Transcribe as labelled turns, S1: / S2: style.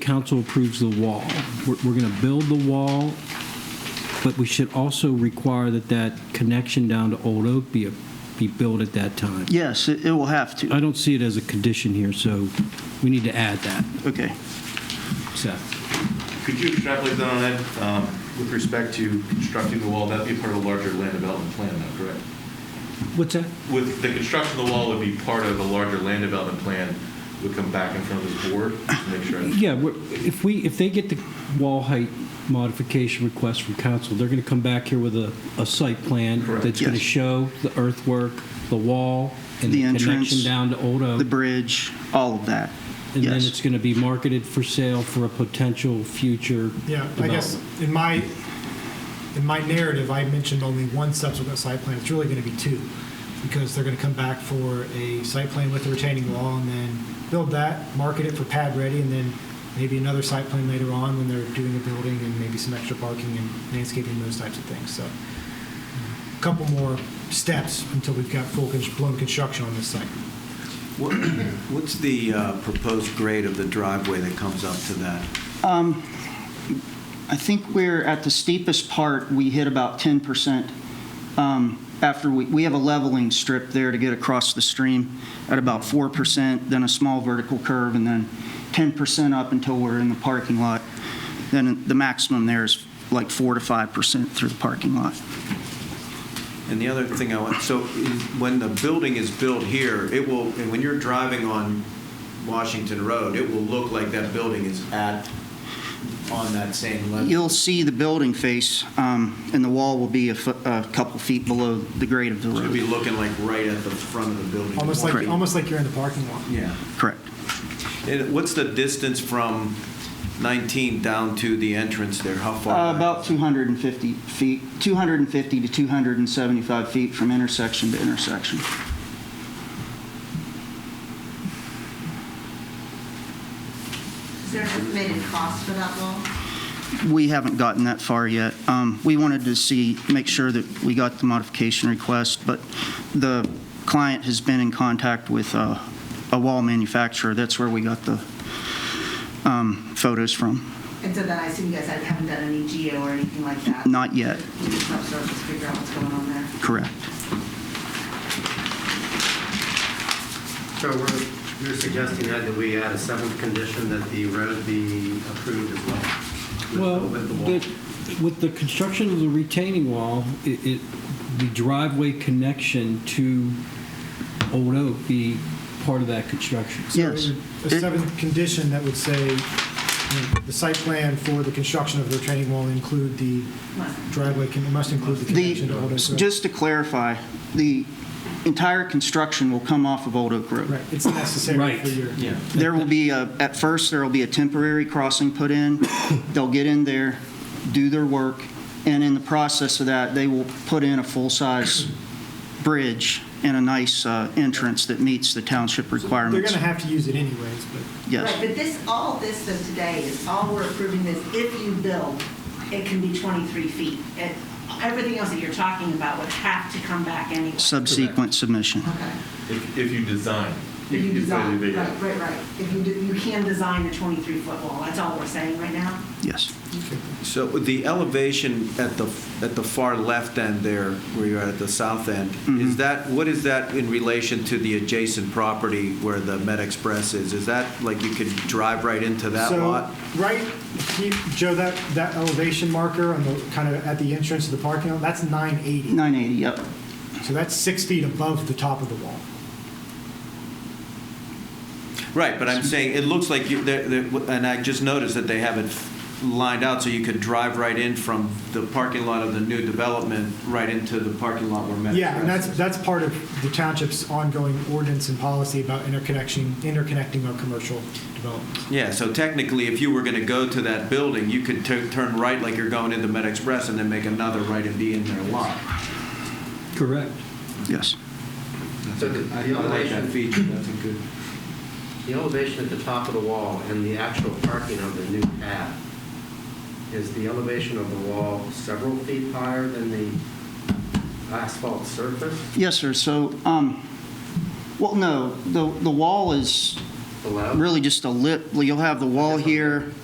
S1: council approves the wall. We're, we're going to build the wall, but we should also require that that connection down to Old Oak be, a- be built at that time.
S2: Yes, it it will have to.
S1: I don't see it as a condition here, so we need to add that,
S2: Okay.
S1: Seth.
S3: Could you extrapolate that on that, um, with respect to constructing the wall, that'd be part of a larger land development plan, though, correct?
S1: What's that?
S3: With, the construction of the wall would be part of a larger land development plan, would come back in front of this board, to make sure.
S1: Yeah, we're- if we, if they get the wall height modification request from council, they're going to come back here with a, a site plan
S3: Correct.
S1: that's going to
S2: Yes.
S1: show the earthwork, the wall, and the
S2: The
S1: connection
S2: entrance,
S1: down to Old Oak.
S2: The bridge, all of that.
S1: And then
S2: Yes.
S1: it's going to be marketed for sale for a potential future
S4: Yeah, I guess
S1: development.
S4: in my, in my narrative, I mentioned only one subsequent site plan. It's really going to be two, because they're going to come back for a site plan with the retaining wall and then build that, market it for pad ready, and then maybe another site plan later on when they're doing a building and maybe some extra parking and landscaping, those types of things. So a couple more steps until we've got full cons- blown construction on this site.
S5: What- What's the uh, proposed grade of the driveway that comes up to that?
S2: Um, I think we're at the steepest part, we hit about 10%. um, After, we we have a leveling strip there to get across the stream at about 4%, then a small vertical curve, and then 10% up until we're in the parking lot. Then the maximum there is like 4 to 5% through the parking lot.
S5: And the other thing I want, so is- when the building is built here, it will, and when you're driving on Washington Road, it will look like that building is at, on that same level.
S2: You'll see the building face, um, and the wall will be a fo- a couple feet below the grade of the
S5: So It'll be
S2: road.
S5: looking like right at the front of the building.
S4: Almost like,
S2: Correct.
S4: almost like you're in the parking lot.
S5: Yeah.
S2: Correct.
S5: And what's the distance from 19 down to the entrance there? How far?
S2: Uh,
S5: back?
S2: About 250 feet, 250 to 275 feet from intersection to intersection.
S6: Is there an estimated cost for that wall?
S2: We haven't gotten that far yet. Um, We wanted to see, make sure that we got the modification request, but the client has been in contact with uh, a wall manufacturer. That's where we got the um, photos from.
S6: And so then I assume you guys haven't done any geo or anything like that?
S2: Not yet.
S6: You just have to figure out what's going on there.
S2: Correct.
S7: So we're, you're suggesting that that we add a seventh condition that the road be approved as well? with-
S1: Well,
S7: With the wall?
S1: the- with the construction of the retaining wall, it, it- the driveway connection to Old Oak be part of that construction.
S2: Yes.
S4: A seventh condition that would say, you know, the site plan for the construction of the retaining wall include the driveway, can- it must include the connection to Old Oak
S2: The,
S4: Road.
S2: just to clarify, the entire construction will come off of Old Oak Road.
S4: Right, it's necessary
S1: Right.
S4: for your,
S5: Yeah.
S2: There will be, a- at first, there will be a temporary crossing put in. They'll get in there, do their work, and in the process of that, they will put in a full-size bridge and a nice uh, entrance that meets the township
S4: they're
S2: requirements.
S4: going to have to use it anyways, but
S2: Yes.
S6: Right, but this, all this of today is, all we're approving is if you build, it can be 23 feet. It- Everything else that you're talking about would have to come back anyway.
S2: Subsequent submission.
S6: Okay.
S3: If, if you design.
S6: If you
S3: it's gonna be
S6: design,
S3: bigger.
S6: right, right, right. If you, do- you can design a 23-foot wall, that's all we're saying right now?
S2: Yes.
S5: So the elevation at the, at the far left end there, where you're at the south end,
S4: Mm-hmm.
S5: is that, what is that in relation to the adjacent property where the Med Express is? Is that, like, you could drive right into that
S4: so,
S5: lot?
S4: right, he- Joe, that, that elevation marker on the, kind of at the entrance to the parking lot, that's 980.
S2: 980, yep.
S4: So that's six feet above the top of the wall.
S5: Right, but I'm saying, it looks like you, there- there- and I just noticed that they have it lined out, so you could drive right in from the parking lot of the new development, right into the parking lot where Med Express is.
S4: Yeah, and that's, that's part of the township's ongoing ordinance and policy about interconnection, interconnecting our commercial developments.
S5: Yeah, so technically, if you were going to go to that building, you could tu- turn right like you're going into Med Express and then make another right and be in their lot.
S1: Correct.
S2: Yes.
S7: So the-
S5: I I like that
S7: the elevation,
S5: feature, that's a good.
S7: the elevation at the top of the wall and the actual parking of the new pad, is the elevation of the wall several feet higher than the asphalt surface?
S2: Yes, sir. So, um, well, no, the, the wall is
S7: allowed?
S2: really just a lip, you'll have the wall here,